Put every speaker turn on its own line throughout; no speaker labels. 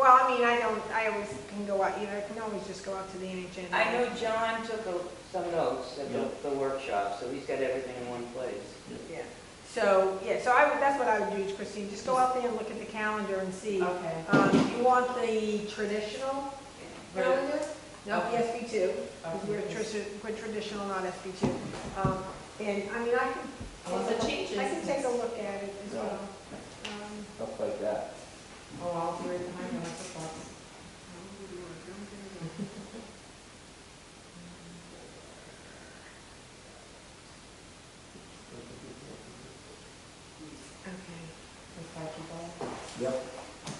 I mean, I don't, I always can go out, either, I can always just go out to the NHN.
I know John took a- some notes at
Yeah.
the- the workshop, so he's got everything in one place.
Yeah, so, yeah, so I, would- that's what I would do, is Christine, just go out there and look at the calendar and see.
Okay.
Um, you want the traditional calendar? No,
Okay.
SB two,
Okay.
we're tradi- we're traditional, not SB two. Um, and, I mean, I can.
Well, the changes-
I can take a look at it as well. Um,
stuff like that.
Oh, I'll do it in my notes, that's-
Okay.
that's how you go.
Yep.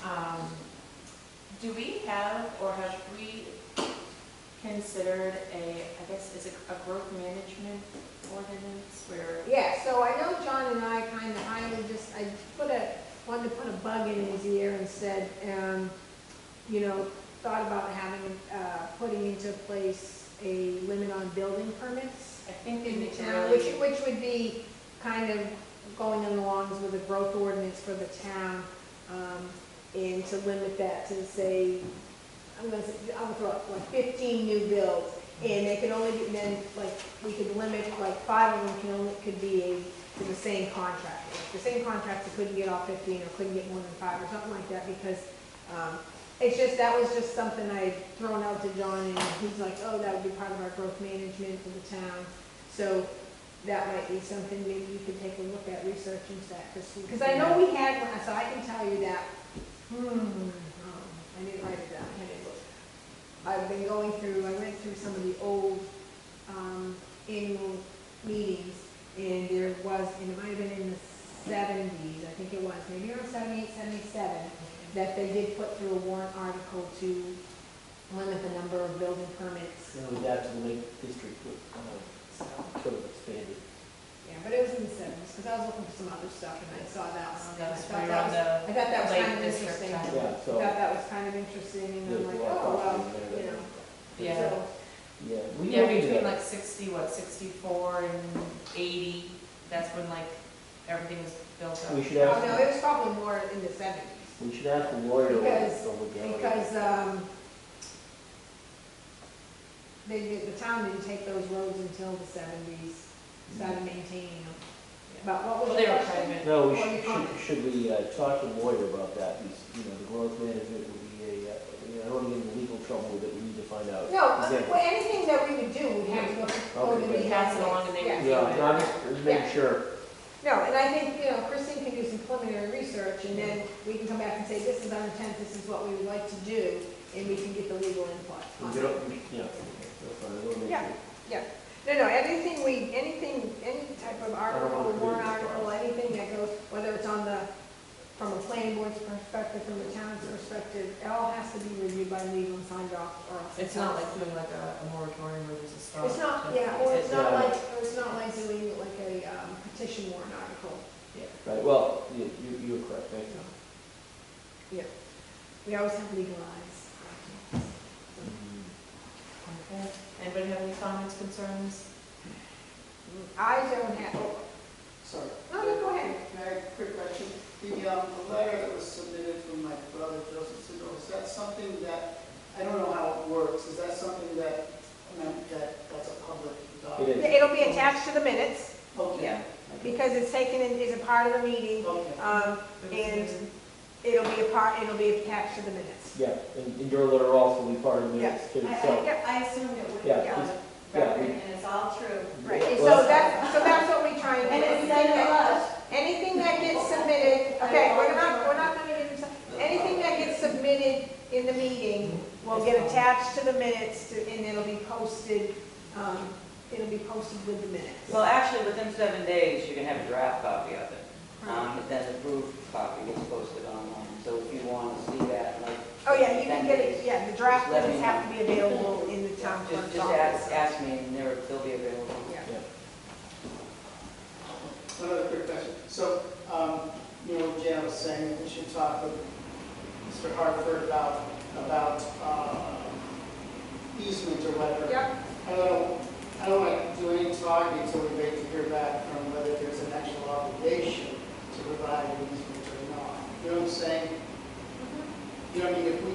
Um, Do we have, or have we considered a, I guess, is it a growth management ordinance where?
Yeah, so I know John and I kind of, I would just, I put a, wanted to put a bug in his ear and said, um, you know, thought about having, uh, putting into place a limit on building permits
I think we
in the
need to
town, which,
really,
which would be kind of going along with the growth ordinance for the town, um, and to limit that to say, I'm gonna, say- I'll throw out like fifteen new builds, and they can only, be then, like, we could limit, like, five of them can only, could be a, to the same contractor. If The same contractor couldn't get all fifteen, or couldn't get more than five, or something like that, because, um, it's just, that was just something I had thrown out to John, and he's like, oh, that would be part of our growth management for the town. So that might be something maybe you could take a look at, research into that, Christine. Because I know we had one, so I can tell you that, hmm, um, I didn't write it down, I had it look. I've been going through, I went through some of the old, um, annual meetings, and there was, and it might have been in the seventies, I think it was, maybe around seventy-eight, seventy-seven, that they did put through a warrant article to limit the number of building permits,
And with that, to the Lake District, would, uh,
um,
so.
sort of expanded.
Yeah, but it was in the seventies, because I was looking for some other stuff and I saw that one. and I
That was
thought
right
that
around
was- I thought that was
Lake
kind of
District
interesting. I
time.
Yeah, so.
thought that was kind of interesting and I'm
there's
like,
a lot of
oh, well,
property
you
there
know.
that-
yeah.
so-
Yeah, we
Yeah,
don't need
between
that.
like sixty, what, sixty-four and eighty, that's when like everything was built up.
We should
Oh, no, it was
ask,
probably more in the seventies.
we should ask the lawyer to look
Because-
over it.
Because, um, they, did- the town didn't take those roads until the seventies, started
Mm-hmm.
maintaining them. But what
Well,
was
they
your
were
question?
private.
No, we
Or
should,
you comment.
should, should we uh, talk to the lawyer about that, Because, you know, the growth management would be a, uh, you know, I don't want to get into legal trouble with it, we need to find out.
No,
exactly.
well, anything that we would do, we have to go go to
Okay,
the.
good.
Pass it along and they
Yeah.
review
Yeah, no, I'm just- just
Yeah.
making sure.
No, and I think, you know, Christine can do some preliminary research, and then we can come back and say, this is our intent, this is what we would like to do, and we can get the legal input.
We
on
get
it.
up- we- yeah, that's fine, I don't make
Yeah.
it-
No, no, anything we, anything, any type of article,
want to
warrant
do this.
article, anything that goes, whether it's on the, from a planning board's perspective, from the town's perspective, it all has to be reviewed by legal and signed off, or else.
It's not like doing like a a moratorium where there's a stop.
It's not,
to-
yeah, or it's not
Uh, Yeah.
like, or it's not like doing like a um, petition warrant article.
Right, well, you, you- you're correct, thank you.
Yeah. We always have legal eyes. Mm-hmm.
Okay. Anybody have any comments, concerns?
I don't have, oh,
Sorry.
No, no, go ahead.
Mary, quick question. The, um, the letter that was submitted from my brother Joseph Sindo, is that something that, I don't know how it works, is that something that, I mean, that, that's a public document?
It is.
it'll be attached to the minutes
Okay,
because it's taken in, is a part of the meeting.
okay.
Um, and it'll be a part, it'll be attached to the minutes.
Yeah, and and your letter also will be part of the minutes too,
I, I,
so.
yeah, I assumed it would be
Yeah,
on
it's-
the
yeah,
record,
we-
and it's all true.
Right,
Well,
and so that's, so that's what we try and. do.
And it's said
Anything
to
that-
us,
Anything that gets submitted, okay, we're not, we're not gonna get into, anything that gets submitted in the meeting will get attached to the minutes to- and it'll be posted, um, it'll be posted with the minutes.
Well, actually, within seven days, you can have a draft copy of it. Um, but then the approved copy is posted online, so if you want to see that, like.
Oh, yeah, you can
10
get
days,
it, yeah, the draft
Let me
minutes have to be available in the town
Just,
clerk's
just ask,
office.
ask me, and they're, they'll be available.
Yeah.
One other quick question. So, um, you know, Jan was saying that we should talk with Mr. Hartford about, about, uh, easement or whatever.
Yep,
I don't, I don't want to do any talking until we wait to hear back from whether there's an actual obligation to provide an easement or not. You know what I'm saying? You know, I mean, if we